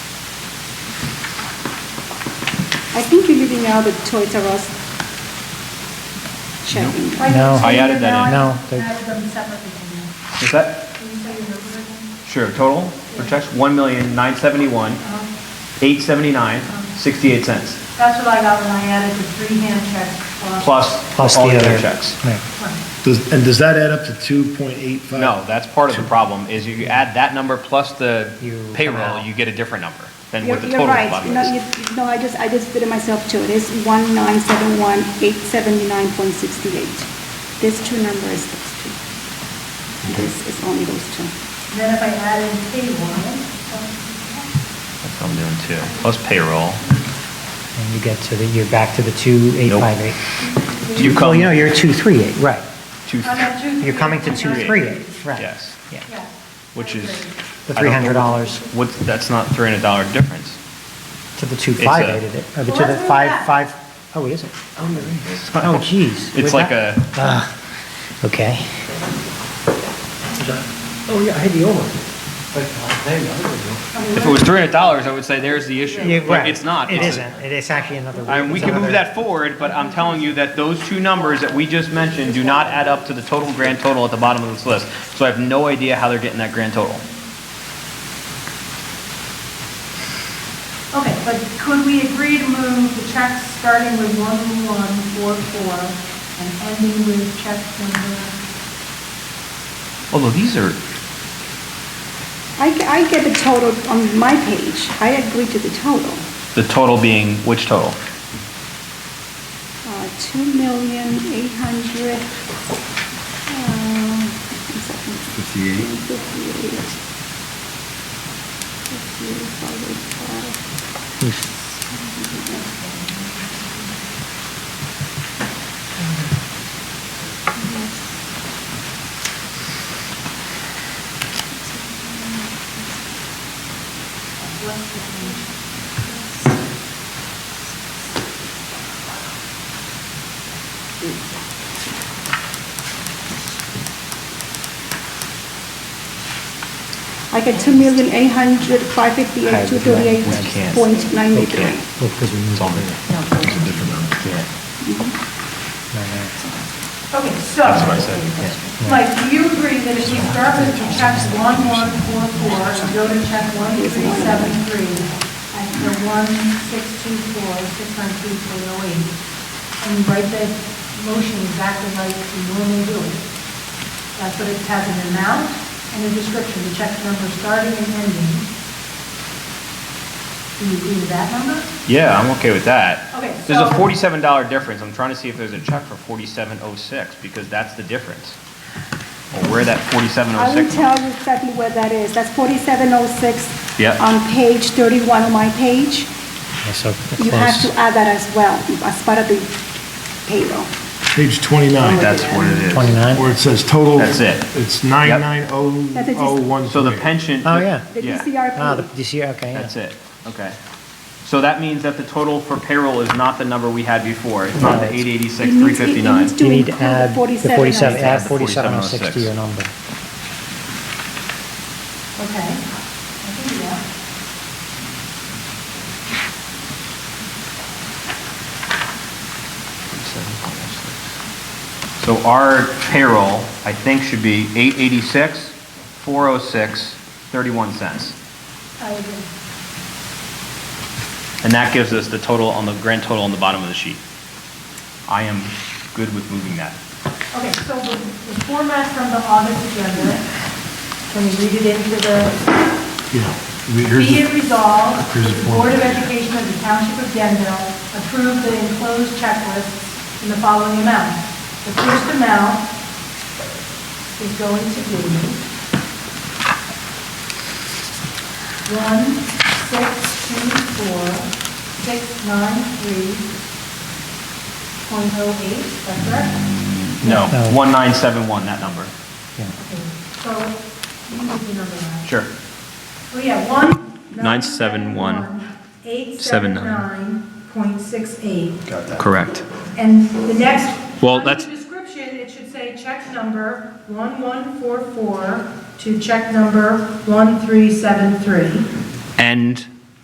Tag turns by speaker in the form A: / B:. A: I think you're leaving out the Toys R Us checking.
B: No.
C: I added that in.
B: No, they-
D: Added them separately from you.
C: Is that,
D: Can you say your number again?
C: sure, total for checks, one million, nine seventy-one, eight seventy-nine, sixty-eight cents.
D: That's what I got when I added the three hand checks plus.
C: Plus
B: Plus
C: all
B: the
C: the other
B: other.
C: checks.
B: Right.
E: Does, and does that add up to 2.85?
C: No, that's part of the problem, is you add that number plus the
B: You come
C: payroll,
B: out.
C: you get a different number than
A: You're
C: what the
A: you're
C: total
A: right.
C: budget
A: No,
C: is.
A: you- No, I just, I just did it myself too. It is 1971879.68. These two numbers, those two. This is only those two.
D: Then if I add in payroll,
C: That's what I'm doing too, plus payroll.
B: And you get to the, you're back to the 2858.
C: You
B: Well,
C: come
B: you know, you're 238, right.
C: to,
D: I'm at two.
B: You're coming to
D: three.
B: 238, right.
C: Yes.
B: Yeah.
D: Yes.
C: which is.
B: The
C: I don't know-
B: $300.
C: What's, that's not three hundred dollar difference.
B: To the 258, it is. Or the- to the
D: Well,
B: 5,
D: that's
B: 5, oh, it isn't. Oh, geez.
C: It's like a,
B: Ah, Okay.
F: Oh, yeah, I had the old one. But, uh, there you go, there you go.
C: if it was three hundred dollars, I would say there's the
B: Yeah,
C: issue, but
B: right.
C: it's not.
B: It
C: It's-
B: isn't. It is actually another.
C: I mean, we
B: it's
C: can move
B: another-
C: that forward, but I'm telling you that those two numbers that we just mentioned do not add up to the total grand total at the bottom of this list. So I have no idea how they're getting that grand total.
D: Okay, but could we agree to move the checks starting with one one four four and ending with check number?
C: Although these are,
A: I, ge- I get the total on my page. I agree to the total.
C: the total being, which total?
A: Uh, Two million, eight hundred, uh, one second. Fifty-eight. Fifty-eight, five, eight. I get two million, eight hundred, five fifty-eight, two thirty-eight point ninety-three.
B: Well, because we moved on.
D: Okay, so. That's what I said. Mike, do you agree that if we start with the checks one one four four and go to check one three seven three and the one six two four, six nine two three oh eight, and you write the motion exactly like you normally do it? That's what it has an amount and a description, the check number starting and ending. Do you agree with that number?
C: Yeah, I'm okay with that.
D: Okay,
C: There's a
D: so-
C: forty-seven dollar difference. I'm trying to see if there's a check for forty-seven oh six, because that's the difference. Or where that forty-seven
A: I
C: oh
A: will
C: six.
A: tell you exactly where that is. That's forty-seven oh six.
C: Yeah.
A: On page thirty-one of my page.
B: Yeah, So
A: You have to
B: close.
A: add that as well, as part of the payroll.
E: Page 29,
C: That's what it is.
B: 29?
E: where it says total.
C: That's it.
E: It's
A: That's it, just-
E: 990013.
C: So the pension.
B: Oh, yeah.
A: The
C: Yeah.
A: DCRP.
B: Ah, the DCR, okay, yeah.
C: That's it, okay. So that means that the total for payroll is not the number we had before, it's not the
B: No.
C: eight
A: It
C: eighty-six, three
A: needs- it
C: fifty-nine.
A: needs to
B: You need to
A: include
B: add the 47,
C: Add
B: add
C: the
B: 4706
C: 4706.
B: to your number.
D: Okay, I can do that.
C: So our payroll, I think, should be eight eighty-six, four oh six, thirty-one cents.
D: I agree.
C: And that gives us the total on the, grand total on the bottom of the sheet. I am good with moving that.
D: Okay, so the the format from the August agenda, can we read it into the,
E: Yeah. We- here's
D: be
E: the-
D: it resolved,
E: here's the
D: the Board of
E: format.
D: Education of the Township of Denville approve the enclosed checklists in the following amount. The first amount is going to be one, six, two, four, six, nine, three, point oh eight, is that correct?
C: No,
B: No.
C: one nine seven one, that number,
D: Okay, So, you can do number nine.
C: sure.
D: Oh, yeah, one.
C: Nine, seven, one,
D: Eight,
C: seven,
D: seven, nine, point six eight.
C: Correct.
D: And the next.
C: Well,
D: under
C: that's-
D: the Description, it should say check number one, one, four, four to check number one, three, seven, three.
C: And